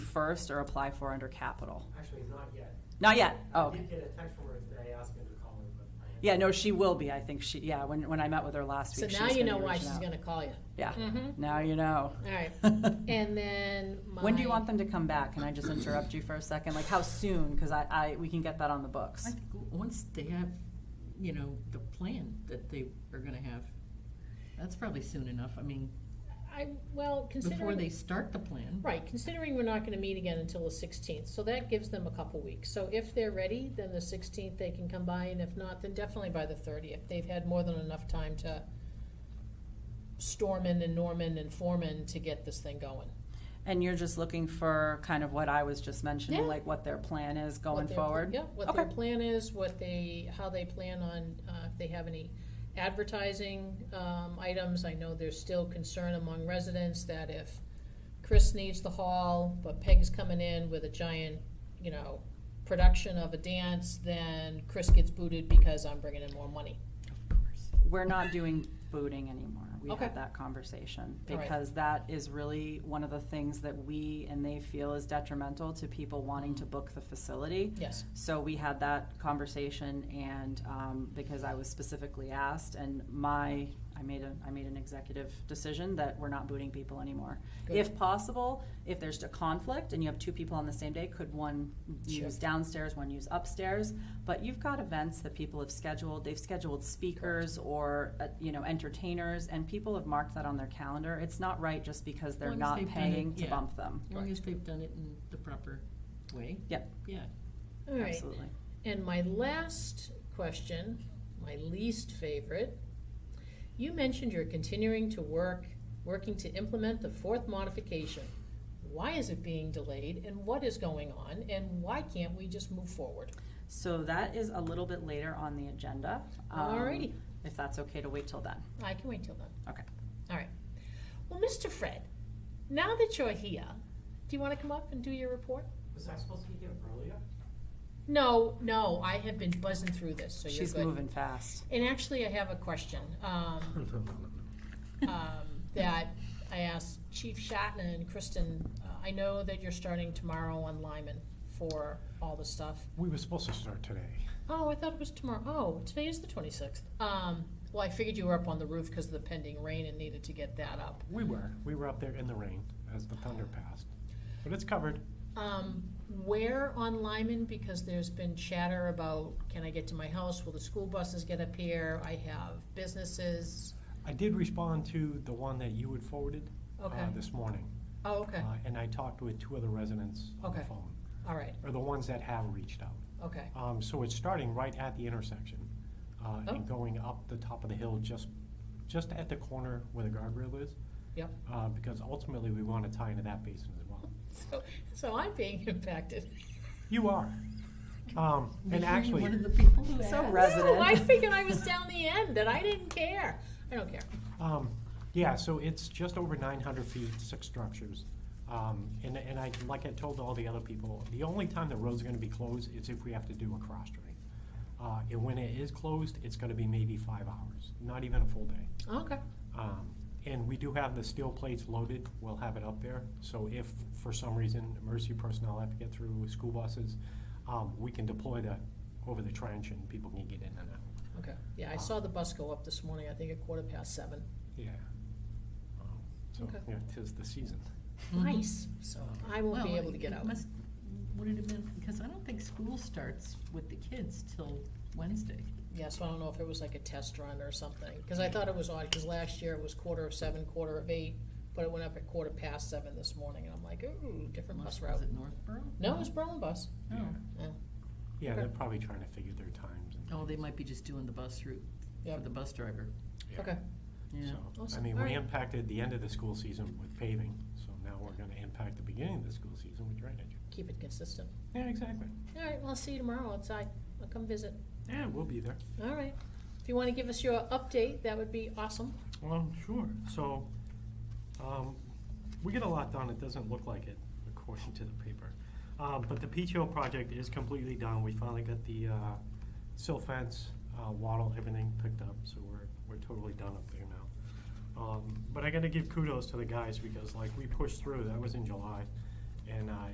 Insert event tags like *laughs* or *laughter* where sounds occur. first or apply for under capital? Actually, not yet. Not yet, oh, I okay. did get a text from her today asking to call me, but I haven't. Yeah, no, she will be, I think she, yeah, when, when I met with her last So week, she now was you gonna know be why reaching she's out. gonna call you. Yeah, *laughs* Mhm. now you know. *laughs* All right. And then my. When do you want them to come back? Can I just interrupt you for a second? Like, how soon? Because I, I, we can get that on the books. I think w- once they have, you know, the plan that they are gonna have, that's probably soon enough, I mean, I, well, before they considering, start the plan. right, considering we're not gonna meet again until the sixteenth, so that gives them a couple weeks. So if they're ready, then the sixteenth they can come by, and if not, then definitely by the thirtieth. They've had more than enough time to Stormin and Norman and Foreman to get this thing going. And you're just looking for kind of what I was just mentioning, Yeah. like what their plan is what going their pl- forward? Yeah, what their Okay. plan is, what they, how they plan on, uh, if they have any advertising, um, items. I know there's still concern among residents that if Chris needs the hall, but Peg's coming in with a giant, you know, production of a dance, then Chris gets booted because I'm bringing in more money. Of course. We're not doing booting anymore. We Okay. had that conversation. All right. Because that is really one of the things that we and they feel is detrimental to people wanting to book the facility. Yes. So we had that conversation and, um, because I was specifically asked and my, I made a, I made an executive decision that we're not booting people anymore. Good. If possible, if there's a conflict and you have two people on the same day, could one Sure. use downstairs, one use upstairs? But you've got events that people have scheduled, they've scheduled speakers or, uh, you know, entertainers, and people have marked that on their calendar. It's not right just because they're Long as not they've done it, paying to yeah. bump them. As long as they've done it in the proper way. Yep. Yeah. All right. Absolutely. And my last question, my least favorite. You mentioned you're continuing to work, working to implement the fourth modification. Why is it being delayed and what is going on and why can't we just move forward? So that is a little bit later on the agenda. um, Alrighty, If that's okay to wait till then. I can wait till then. Okay. All right. Well, Mr. Fred, now that you're here, do you want to come up and do your report? Was I supposed to be here earlier? No, no, I have been buzzing through this, so you're good. She's moving fast. And actually, I have a question, um, um, that I asked Chief Shatna and Kristen. Uh, I know that you're starting tomorrow on Lyman for all the stuff. We were supposed to start today. Oh, I thought it was tomorrow. Oh, today is the twenty-sixth. Um, well, I figured you were up on the roof because of the pending rain and needed to get that up. We were. We were up there in the rain as the thunder passed. But it's covered. Um, where on Lyman? Because there's been chatter about, can I get to my house? Will the school buses get up here? I have businesses. I did respond to the one that you had forwarded uh, Okay. this morning. Oh, okay, Uh, And I talked with two other residents on the Okay. phone, all right, or the ones that have reached out. okay. Um, So it's starting right at the intersection uh, Oh. and going up the top of the hill, just, just at the corner where the guardrail is. Yep. uh, Because ultimately, we want to tie into that basin as well. So, so I'm being *laughs* impacted. *laughs* You are. Um, And actually. One of the people *laughs* who So asked. resident. No, I figured I was down the end, and I didn't care. I don't care. Um, yeah, so it's just over nine hundred feet, six structures. Um, and, and I, like I told all the other people, the only time the roads are gonna be closed is if we have to do a cross drain. Uh, and when it is closed, it's gonna be maybe five hours, not even a full day. Okay, Um, and we do have the steel plates loaded, we'll have it up there, so if for some reason emergency personnel have to get through school buses, um, we can deploy that over the trench and people can get in and out. okay. Yeah, I saw the bus go up this morning, I think at quarter past seven. Yeah. Um, So, Okay. yeah, tis the season. Mhm. Mm-hmm. Nice, so I won't be Well, able to get it out. must- Would it have been, because I don't think school starts with the kids till Wednesday. Yeah, so I don't know if it was like a test run or something, because I thought it was odd, because last year it was quarter of seven, quarter of eight, but it went up at quarter past seven this morning, and I'm like, ooh, different bus Unless- route. Was it Northborough? No, it was Berlin bus. Oh, Yeah, they're probably trying to figure their times. and- oh, they might be just doing the bus route for Yep. the bus driver, yeah. Okay, yeah. So, I Awesome. mean, All we right. impacted the end of the school season with paving, so now we're gonna impact the beginning of the school season with drainage. keep it consistent. Yeah, exactly. All right, well, I'll see you tomorrow outside. I'll come visit. Yeah, we'll be there. All right. If you want to give us your update, that would be awesome. Well, sure. So, um, we get a lot done. It doesn't look like it according to the paper. Um, but the PTO project is completely done. We finally got the, uh, sill fence, uh, wattle, everything picked up, so we're, we're totally done up there now. Um, but I gotta give kudos to the guys because like we pushed through, that was in July. And, uh,